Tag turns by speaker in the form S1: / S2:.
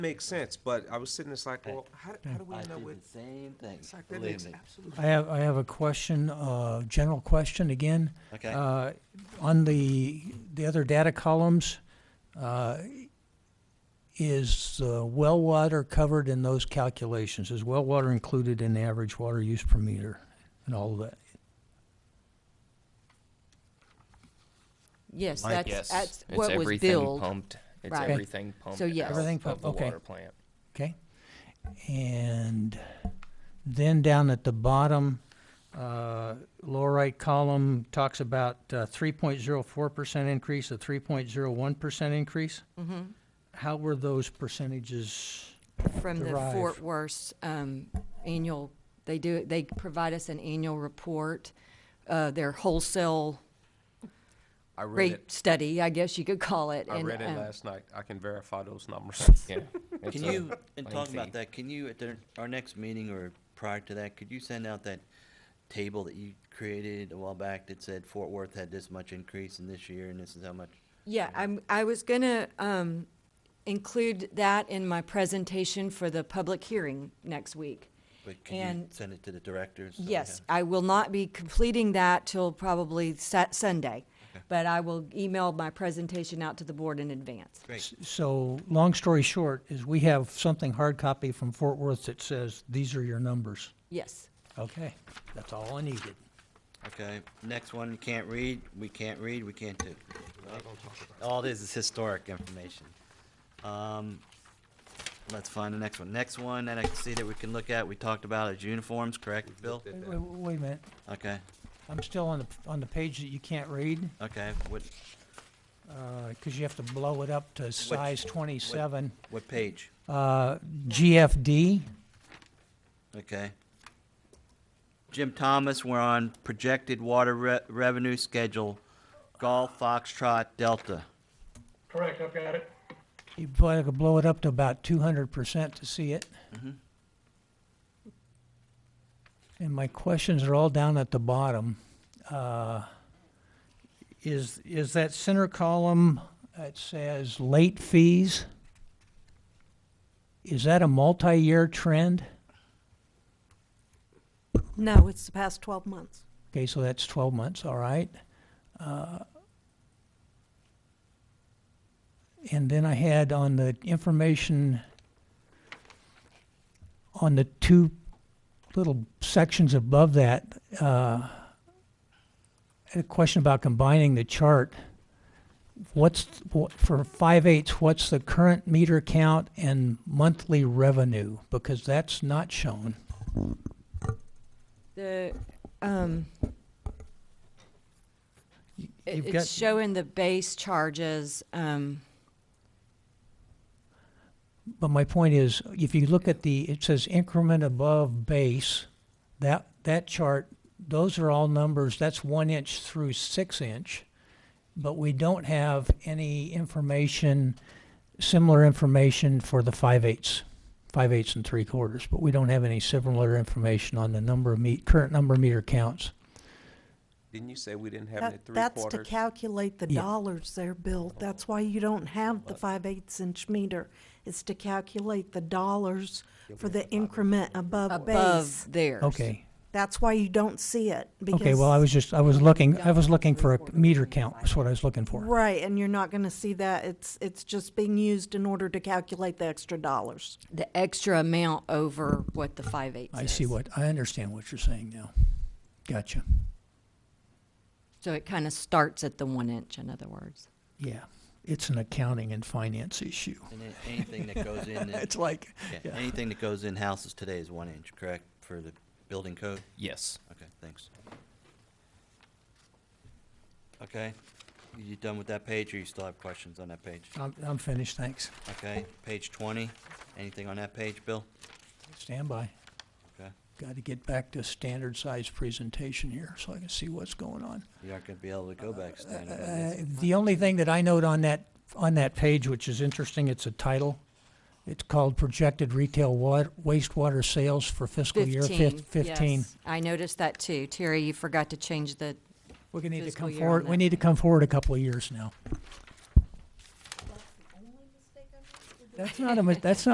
S1: Makes sense, but I was sitting, it's like, well, how, how do we
S2: I
S1: know
S2: did
S1: what?
S2: the same thing,
S1: It's like, that
S2: believe
S1: makes
S2: me.
S1: absolutely.
S3: I have, I have a question, uh, general question again.
S2: Okay.
S3: Uh, on the, the other data columns, uh, is, uh, well water covered in those calculations? Is well water included in the average water use per meter and all of that?
S4: Yes,
S5: My
S4: that's,
S5: guess,
S4: that's
S5: it's
S4: what was
S5: everything
S4: billed. Oh,
S5: pumped. It's
S4: Right. Okay.
S5: everything pumped.
S4: So, yes.
S5: out
S3: Everything
S5: of
S3: pumped,
S5: the
S3: okay.
S5: Water plant.
S3: Okay? And then down at the bottom, uh, lower right column talks about uh, three point zero four percent increase, a three point zero one percent increase. How were those percentages?
S4: From the
S3: Derived.
S4: Fort Worth um, annual, they do, they provide us an annual report, uh, their wholesale
S1: I read
S4: rate
S1: it,
S4: study, I guess you could call it.
S1: I
S4: and,
S1: read it
S4: um,
S1: last night. I can verify those numbers.
S5: Yeah. It's
S2: Can
S5: a
S2: you, in talking
S5: lengthy-
S2: about that, can you, at their- our next meeting or prior to that, could you send out that table that you created a while back that said Fort Worth had this much increase in this year and this is how much?
S4: Yeah, I'm, I was gonna, um, include that in my presentation for the public hearing next week.
S2: But can you
S4: And-
S2: send it to the directors? so we
S4: Yes,
S2: have-
S4: I will not be completing that till probably Sat- Sunday, but I will email my presentation out to the board in advance.
S2: Great,
S3: So, long story short, is we have something hard copy from Fort Worth that says, these are your numbers.
S4: Yes.
S3: Okay, that's all I needed.
S2: okay. Next one, you can't read, we can't read, we can't do. All this is historic information. Um, let's find the next one. Next one that I can see that we can look at, we talked about is uniforms, correct, Bill?
S3: Wait, wait- wait a minute,
S2: Okay,
S3: I'm still on the, on the page that you can't read,
S2: okay, what,
S3: because uh, you have to blow it up to size twenty-seven.
S2: what page?
S3: Uh, GFD,
S2: Okay. Jim Thomas, we're on projected water re- revenue schedule, Golf Foxtrot Delta.
S6: Correct, I've got it.
S3: you blow, blow it up to about two hundred percent to see it. And my questions are all down at the bottom. Uh, Is, is that center column that says late fees? Is that a multi-year trend?
S7: No, it's the past 12 months.
S3: Okay, so that's twelve months, all right. Uh, And then I had on the information, on the two little sections above that, uh, I had a question about combining the chart. What's, what- for five eighths, what's the current meter count and monthly revenue? Because that's not shown.
S4: The, um, it-
S3: you've
S4: it's
S3: got-
S4: showing the base charges, um,
S3: But my point is, if you look at the, it says increment above base, that, that chart, those are all numbers, that's one inch through six inch. But we don't have any information, similar information for the five eighths, five eighths and three quarters. But we don't have any similar information on the number of meet, current number of meter counts.
S1: Didn't you say we didn't have it
S7: That-
S1: at three
S7: That's to
S1: quarters?
S7: calculate the
S3: Yeah.
S7: dollars they're billed. That's why you don't have the 5/8 inch meter. It's to calculate the dollars for the increment above base.
S4: above theirs.
S3: Okay,
S7: That's why you don't see it.
S3: okay,
S7: because-
S3: well, I was just, I was looking, I was looking for a meter count, was what I was looking for.
S7: Right, and you're not going to see that. It's, it's just being used in order to calculate the extra dollars.
S4: The extra amount over what the five eight.
S3: I see what, I understand what you're saying now. Gotcha.
S4: So it kind of starts at the one inch, in other words.
S3: Yeah, it's an accounting and finance issue.
S2: And then anything that goes in,
S3: It's like,
S2: yeah,
S3: yeah.
S2: anything that goes in houses today is one inch, correct, for the building code?
S5: Yes.
S2: Okay, thanks. Okay, you done with that page, or you still have questions on that page?
S3: I'm, I'm finished, thanks.
S2: Okay, page twenty, anything on that page, Bill?
S3: Stand by.
S2: Okay,
S3: Got to get back to standard size presentation here so I can see what's going on.
S2: you aren't gonna be able to go back standing on
S3: Uh,
S2: this.
S3: The only thing that I note on that, on that page, which is interesting, it's a title. It's called Projected Retail Wa- Wastewater Sales for Fiscal Year
S4: Fifteen.
S3: Fif- Fifteen.
S4: yes. I noticed that too. Terry, you forgot to change the,
S3: We're gonna need to
S4: Fiscal
S3: come
S4: year
S3: forward,
S4: on
S3: we
S4: that.
S3: need to come forward a couple of years now. That's not a, mi- that's not